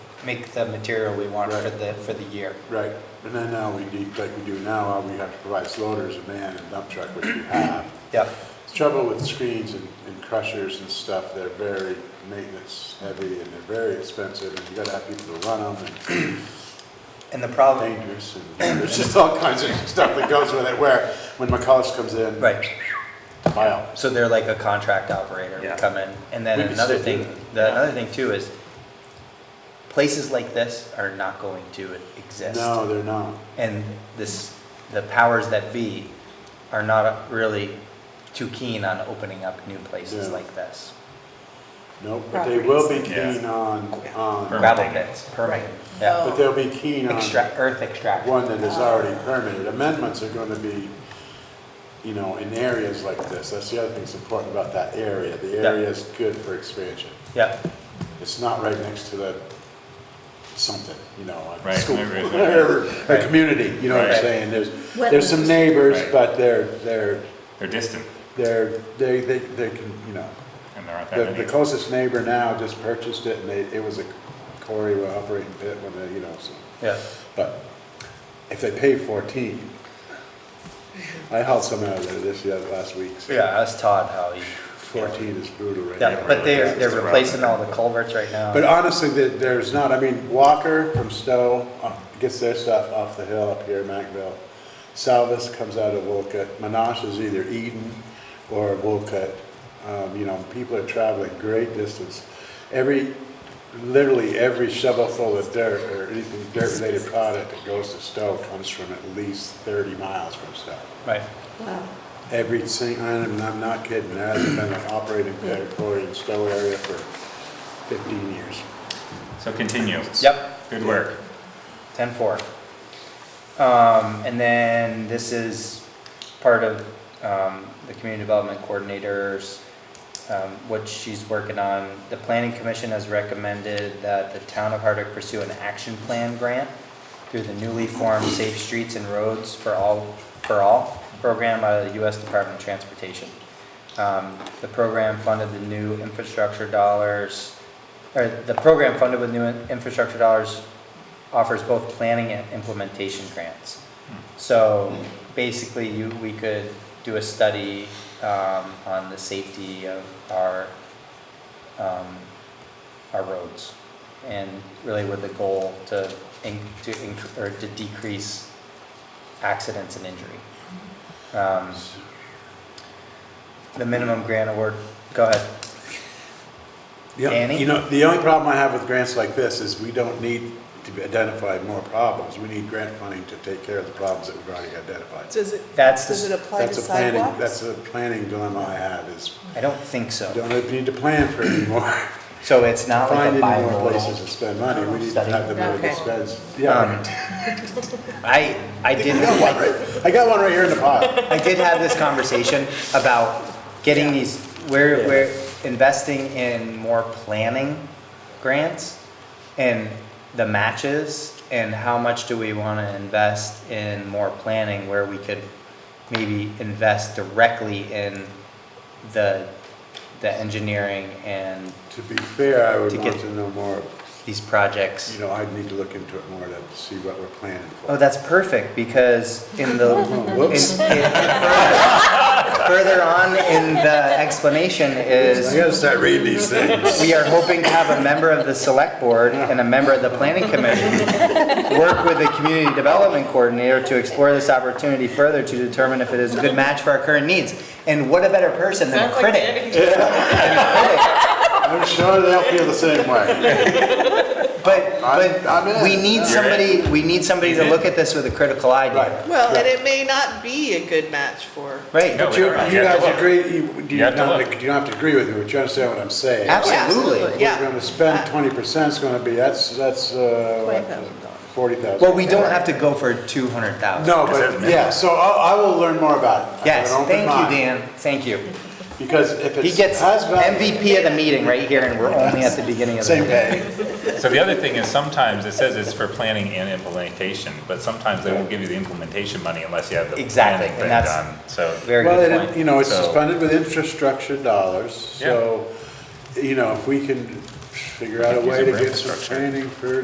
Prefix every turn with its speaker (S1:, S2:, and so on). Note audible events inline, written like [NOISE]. S1: make the material we want for the, for the year.
S2: Right, and then now we need, like we do now, uh, we have to provide loaders, a van, and dump truck, which we have.
S1: Yep,
S2: Trouble with screens and and crushers and stuff, they're very maintenance heavy and they're very expensive, and you gotta have people to run them, and
S1: and the problem,
S2: dangerous, and [COUGHS] there's just all kinds of [LAUGHS] stuff that goes with it, where, when McCullis comes in.
S1: right,
S2: Wow.
S1: so they're like a contract operator, would
S3: Yeah.
S1: come in, and then
S2: We could
S1: another thing,
S2: still do
S1: the, another thing too is, places like this are not going to exist.
S2: No, they're not.
S1: and this, the powers that be are not really too keen on opening up new places
S2: Yeah.
S1: like this.
S2: Nope, but they will be
S3: Properties.
S2: keen on, on,
S3: Permit.
S1: Gravel pits, permitting, yeah.
S2: but they'll be keen on
S1: Extract, earth extraction.
S2: one that is already permitted. Amendments are gonna be, you know, in areas like this. That's the other thing that's important about that area. The
S1: Yeah.
S2: area is good for expansion.
S1: Yeah,
S2: It's not right next to the something, you know, a
S3: Right,
S2: school,
S3: right, right, right.
S2: or
S1: Right.
S2: a community, you know what I'm
S3: Right.
S2: saying? There's, there's some
S4: Wetlands.
S2: neighbors,
S3: Right.
S2: but they're, they're,
S3: They're distant
S2: they're, they, they, they can, you know,
S3: and there aren't
S2: The,
S3: that
S2: the
S3: many.
S2: closest neighbor now just purchased it, and they, it was a quarry with operating pit when they, you know, so,
S1: yeah,
S2: but if they pay fourteen, I hauled some out of there this, the other, last week, so.
S1: yeah, ask Todd how you,
S2: Fourteen is brutal right
S1: yeah,
S2: now.
S1: but they're, they're
S3: It's rough.
S1: replacing all the culverts right now.
S2: But uh, honestly, there, there's not, I mean, Walker from Stowe uh, gets their stuff off the hill up here in Mackville. Salvis comes out of Wolcott, Monash is either Eden or Wolcott. Um, you know, people are traveling great distance. Every, literally every shovelful of dirt or anything dirt-related product that goes to Stowe comes from at least thirty miles from Stowe.
S1: Right,
S4: Wow.
S2: Every single, I'm, I'm not kidding, there hasn't been an operating pit or quarry in Stowe area for fifteen years.
S3: So continue.
S1: yep.
S3: Good work.
S1: Ten four. Um, and then this is part of, um, the community development coordinators, um, what she's working on. The planning commission has recommended that the town of Hardwick pursue an action plan grant through the newly formed Safe Streets and Roads for All, for All program out of the US Department of Transportation. Um, the program funded the new infrastructure dollars, or the program funded with new in- infrastructure dollars offers both planning and implementation grants. So basically, you, we could do a study um, on the safety of our, um, our roads. And really with the goal to, in- to, inc- or to decrease accidents and injury.
S2: Mm-hmm.
S1: Um, The minimum grant award, go ahead.
S2: Yeah,
S1: Danny?
S2: You know, the only problem I have with grants like this is we don't need to identify more problems. We need grant funding to take care of the problems that we've already identified.
S5: Does it,
S1: That's,
S5: does it
S1: the s-
S5: apply to
S2: That's a planning, that's
S5: sidewalks?
S2: a planning dilemma I have is,
S1: I don't think
S2: we
S1: so.
S2: don't need to plan for anymore.
S1: So it's not like
S2: Find
S1: a
S2: any more
S1: bimodal.
S2: places to spend money. We need to have the money to
S5: Okay.
S2: spend.
S1: Um,
S2: Yeah.
S1: I, I did,
S2: I got one right- I got one right here in the pile.
S1: I did have this conversation about getting these, we're, we're investing in more planning grants and the matches and how much do we want to invest in more planning where we could maybe invest directly in the, the engineering and
S2: To be fair, I would
S1: To
S2: want
S1: get-
S2: to know more,
S1: these projects.
S2: you know, I'd need to look into it more to see what we're planning for.
S1: Oh, that's perfect, because in
S5: [LAUGHS]
S1: the, in-
S2: Whoops.
S1: in- further- further on in the explanation
S2: I
S1: is,
S2: gotta start reading these things.
S1: we are hoping to have a member of the select board and a member of the planning commission work with the community development coordinator to explore this opportunity further to determine if it is a good match for our current needs. And what a better person than a
S5: Sounds like
S1: critic?
S5: Danny.
S2: I'm sure they'll feel the same way.
S1: But,
S2: I'm- I'm
S1: but
S2: in.
S1: we need
S2: You're in. Mm-hmm.
S1: somebody, we need somebody to look at this with a critical eye,
S2: Right.
S1: Dan.
S5: Well, and it may not be a good match for.
S1: Right?
S3: No,
S2: But you,
S3: we don't.
S2: you
S3: You have
S2: guys
S3: to look.
S2: agree, you, do
S3: You
S2: you
S3: have to
S2: not,
S3: look.
S2: you don't have to agree with me, but you understand what I'm saying?
S1: Absolutely.
S5: Absolutely. Yeah.
S2: We're gonna spend twenty percent, it's gonna be, that's, that's, uh,
S5: $20,000.
S2: forty thousand.
S1: Well, we don't have to go for two hundred thousand.
S2: No,
S3: Does that
S2: but,
S3: make-
S2: yeah, so I, I will learn more about it. I
S1: Yes,
S2: have an open
S1: thank
S2: mind,
S1: you, Dan, thank you.
S2: Because if
S1: He
S2: it's,
S1: gets
S2: has value,
S1: MVP of the meeting right here, and we're only at the beginning of the
S2: same
S1: meeting.
S2: day,
S3: So the other thing is sometimes it says it's for planning and implementation, but sometimes they won't give you the implementation money unless you have the
S1: Exactly,
S3: planning
S1: and
S3: thing
S1: that's-
S3: done. So,
S1: Very
S2: well,
S1: good
S2: it-
S1: point.
S2: you know, it's
S3: So-
S2: just funded with infrastructure dollars, so, you know, if we can figure out a
S3: could use
S2: way
S3: it
S2: to
S3: for
S2: get some
S3: infrastructure.
S2: training for